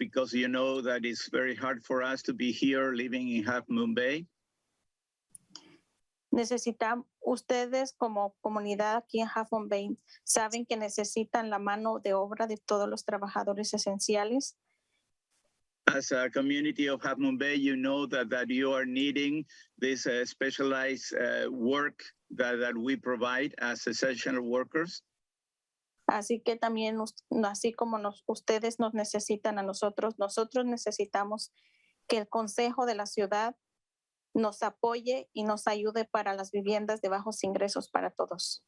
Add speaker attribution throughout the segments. Speaker 1: because you know that it's very hard for us to be here living in Half Moon Bay.
Speaker 2: Necesitan ustedes como comunidad aquí en Huffman Bay, saben que necesitan la mano de obra de todos los trabajadores esenciales.
Speaker 1: As a community of Half Moon Bay, you know that, that you are needing this uh, specialized uh, work that, that we provide as essential workers.
Speaker 2: Así que también, us- así como nos, ustedes nos necesitan a nosotros, nosotros necesitamos que el Consejo de la Ciudad nos apoye y nos ayude para las viviendas de bajos ingresos para todos.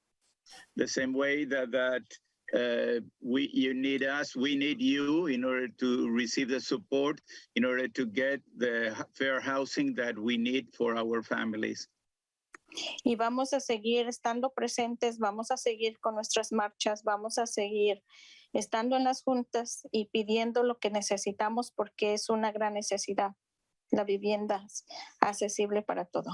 Speaker 1: The same way that, that uh, we, you need us, we need you in order to receive the support, in order to get the h- fair housing that we need for our families.
Speaker 2: Y vamos a seguir estando presentes, vamos a seguir con nuestras marchas, vamos a seguir estando en las juntas y pidiendo lo que necesitamos porque es una gran necesidad, la vivienda accesible para todo.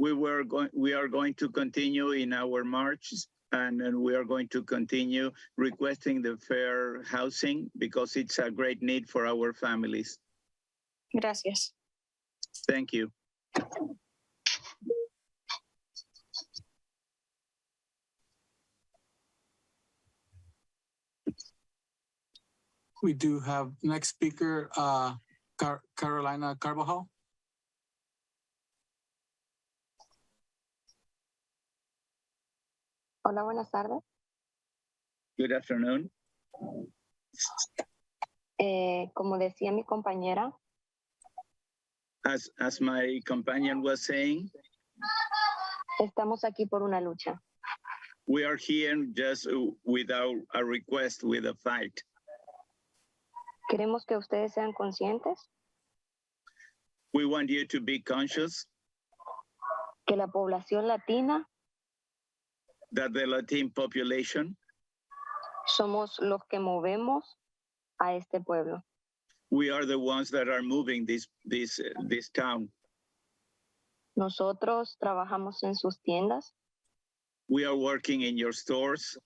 Speaker 1: we were going we are going to continue in our marches and, and we are going to continue requesting the fair housing because it's a great need for our families
Speaker 2: Gracias.
Speaker 1: thank you
Speaker 3: We do have next speaker, uh, Car- Carolina Carvajal.
Speaker 4: Hola, buenas tardes.
Speaker 1: good afternoon
Speaker 4: Eh, como decía mi compañera,
Speaker 1: as as my companion was saying
Speaker 4: estamos aquí por una lucha.
Speaker 1: we are here just with our a request with a fight
Speaker 4: Queremos que ustedes sean conscientes
Speaker 1: we want you to be conscious
Speaker 4: que la población latina
Speaker 1: that the latin population
Speaker 4: somos los que movemos a este pueblo.
Speaker 1: we are the ones that are moving this this this town
Speaker 4: Nosotros trabajamos en sus tiendas,
Speaker 1: we are working in your stores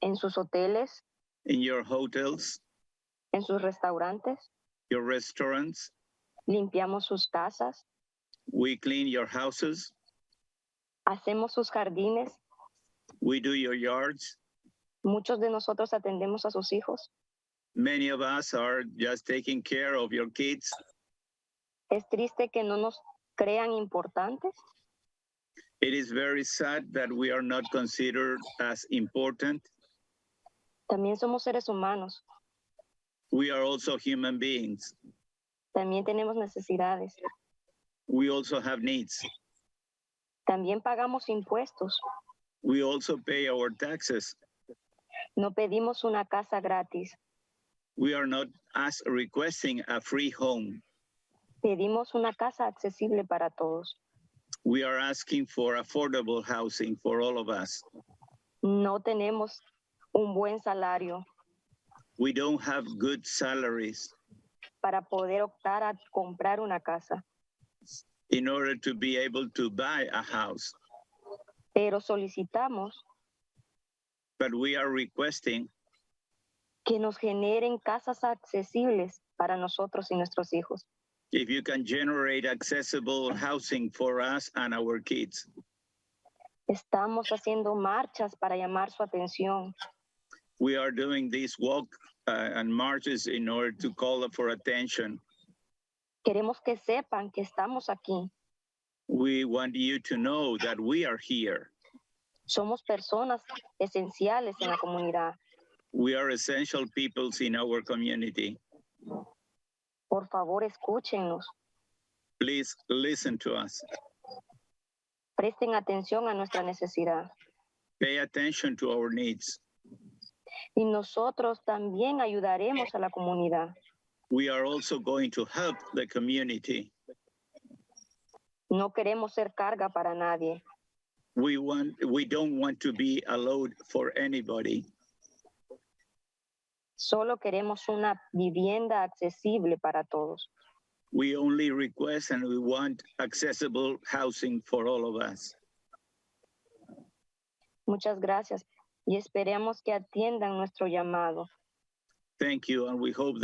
Speaker 4: en sus hoteles,
Speaker 1: in your hotels
Speaker 4: en sus restaurantes,
Speaker 1: your restaurants
Speaker 4: limpiamos sus casas,
Speaker 1: We clean your houses.
Speaker 4: hacemos sus jardines,
Speaker 1: We do your yards.
Speaker 4: muchos de nosotros atendemos a sus hijos.
Speaker 1: Many of us are just taking care of your kids.
Speaker 4: Es triste que no nos crean importantes,
Speaker 1: It is very sad that we are not considered as important.
Speaker 4: también somos seres humanos,
Speaker 1: We are also human beings.
Speaker 4: también tenemos necesidades.
Speaker 1: We also have needs.
Speaker 4: También pagamos impuestos.
Speaker 1: We also pay our taxes.
Speaker 4: No pedimos una casa gratis.
Speaker 1: We are not as requesting a free home.
Speaker 4: Pedimos una casa accesible para todos.
Speaker 1: We are asking for affordable housing for all of us.
Speaker 4: No tenemos un buen salario
Speaker 1: We don't have good salaries
Speaker 4: para poder optar a comprar una casa,
Speaker 1: in order to be able to buy a house,
Speaker 4: pero solicitamos
Speaker 1: but we are requesting
Speaker 4: que nos generen casas accesibles para nosotros y nuestros hijos.
Speaker 1: if you can generate accessible housing for us and our kids.
Speaker 4: Estamos haciendo marchas para llamar su atención.
Speaker 1: We are doing these walk uh, and marches in order to call for attention.
Speaker 4: Queremos que sepan que estamos aquí.
Speaker 1: We want you to know that we are here.
Speaker 4: Somos personas esenciales en la comunidad.
Speaker 1: We are essential peoples in our community.
Speaker 4: Por favor, escúchenos.
Speaker 1: Please listen to us.
Speaker 4: Presten atención a nuestra necesidad.
Speaker 1: Pay attention to our needs.
Speaker 4: Y nosotros también ayudaremos a la comunidad.
Speaker 1: We are also going to help the community.
Speaker 4: No queremos ser carga para nadie.
Speaker 1: We want we don't want to be a load for anybody.
Speaker 4: Solo queremos una vivienda accesible para todos.
Speaker 1: We only request and we want accessible housing for all of us.
Speaker 4: Muchas gracias y esperemos que atiendan nuestro llamado.
Speaker 1: Thank you, and we hope